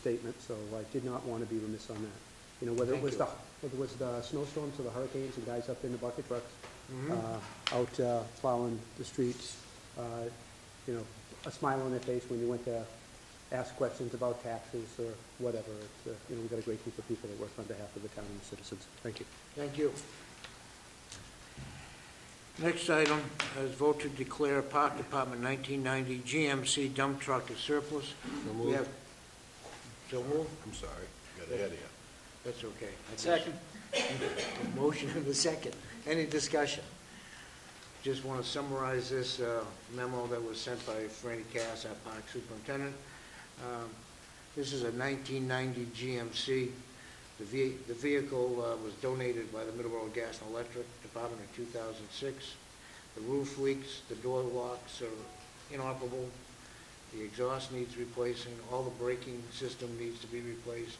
statement, so I did not want to be remiss on that. You know, whether it Thank was you. the, whether it was the snowstorms or the hurricanes and guys up in the bucket trucks, uh, out uh, plowing the streets, uh, you know, a smile on their face when you went to ask questions about taxes or whatever. It's, uh, You know, we've got a great group of people that work on behalf of the town and the citizens. Thank you. Thank you. Next item is vote to declare Park Department 1990 GMC dump truck as surplus. So We have, moved. so moved? I'm sorry, got ahead of you. That's okay. Second. Motion and a second. Any discussion? Just want to summarize this uh, memo that was sent by Franny Cass, our park superintendent. Um, This is a 1990 GMC. The ve- the vehicle uh, was donated by the Middleborough Gas and Electric Department in 2006. The roof leaks, the door locks are inoperable, the exhaust needs replacing, all the braking system needs to be replaced,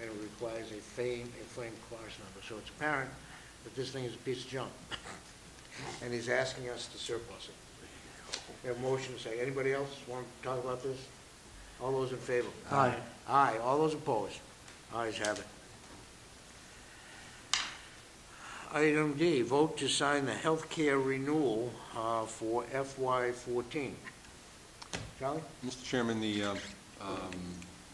and it requires a flame, a flame class number. So it's apparent that this thing is a piece of junk, and he's asking us to surplus it. We have a motion to say, anybody else want to talk about this? All those in favor? Aye. Aye, all those opposed? Ayes have it. Item D, vote to sign the healthcare renewal uh, for FY fourteen. Charlie? Mr. Chairman, the um, um,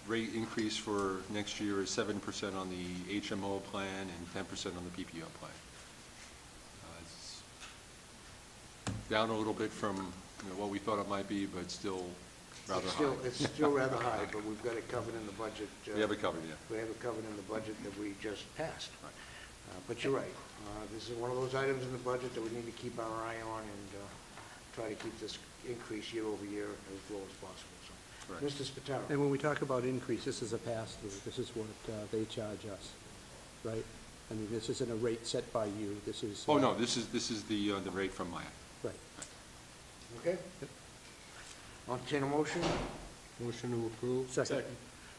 rate increase for next year is seven percent on the HMO plan and ten percent on the PPO plan. Uh, it's Down a little bit from, you know, what we thought it might be, but still rather It's still- high. It's still rather high, but we've got it covered in the budget. uh, We have it covered, yeah. We have it covered in the budget that we just passed. Right. Uh, But you're right. Uh, This is one of those items in the budget that we need to keep our eye on and uh, try to keep this increase year over year as low as possible. So, Correct. Mr. Spataro? And when we talk about increase, this is a pass-through, this is what uh, they charge us, right? I mean, this isn't a rate set by you, this is... Oh, uh, no, this is, this is the, uh, the rate from Maya. Right. Okay? I'll entertain a motion. Motion to approve. Second.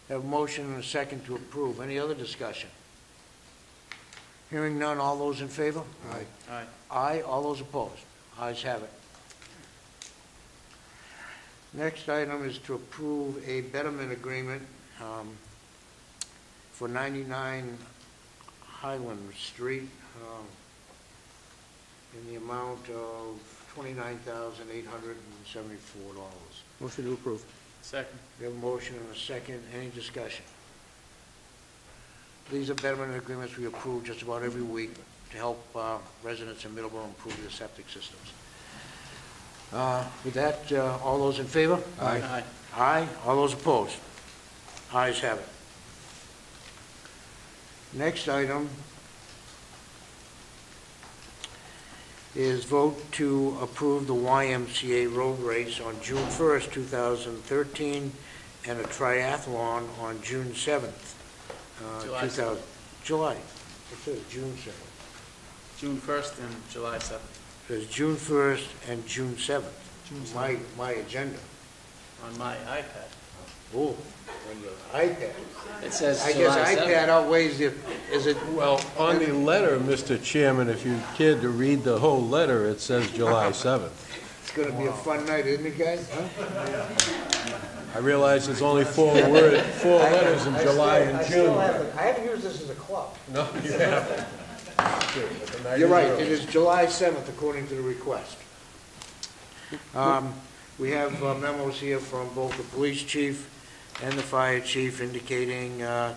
Have a motion and a second to approve. Any other discussion? Hearing none, all those in favor? Aye. Aye. Aye, all those opposed? Ayes have it. Next item is to approve a betterment agreement um, for 99 Highland Street um, in the amount of $29,874. Motion to approve. Second. We have a motion and a second. Any discussion? These are betterment agreements we approve just about every week to help uh, residents in Middleborough improve their septic systems. Uh, With that, uh, all those in favor? Aye. Aye. All those opposed? Ayes have it. Next item is vote to approve the YMCA road race on June 1st, 2013, and a triathlon on June 7th. uh, July 2000 July. It says June 7th. June first and July seventh It says June 1st and June 7th. My, my agenda. on my iPad. Oh, on your iPad. It says I guess iPad outweighs the, is it, Well, on the letter, Mr. Chairman, if you care to read the whole letter, it says July 7th. it's gonna be a fun night, isn't it, guys? I realize it's only four word, four letters in July and June. I haven't used this as a club. No, you haven't. But the night You're is right, early. it is July seventh according to the request. Um, we have uh, memos here from both the police chief and the fire chief indicating, uh,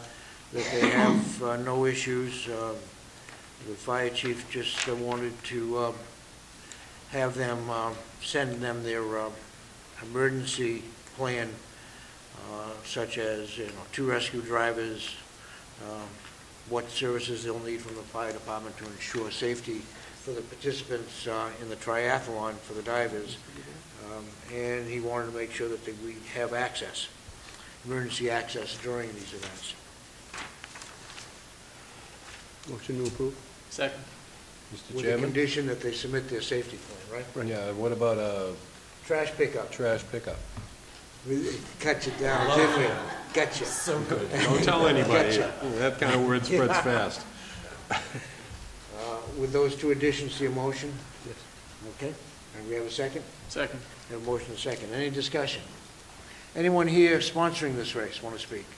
that they have uh, no issues. Um, The fire chief just uh, wanted to, um, have them, um, send them their, um, emergency plan, uh, such as, you know, two rescue drivers, um, what services they'll need from the fire department to ensure safety for the participants uh, in the triathlon for the divers. Um, And he wanted to make sure that we have access, emergency access during these events. Motion to approve. Second. Mr. With the Chairman? condition that they submit their safety plan, right? Yeah, what about a Trash pickup, trash pickup? We- cut you down, didn't we? Got you. So good. Don't tell anybody. That kind of word spreads fast. Uh, With those two additions to your motion, Yes. okay? And we have a second? Second. We have a motion and a second. Any discussion? Anyone here sponsoring this race want to speak?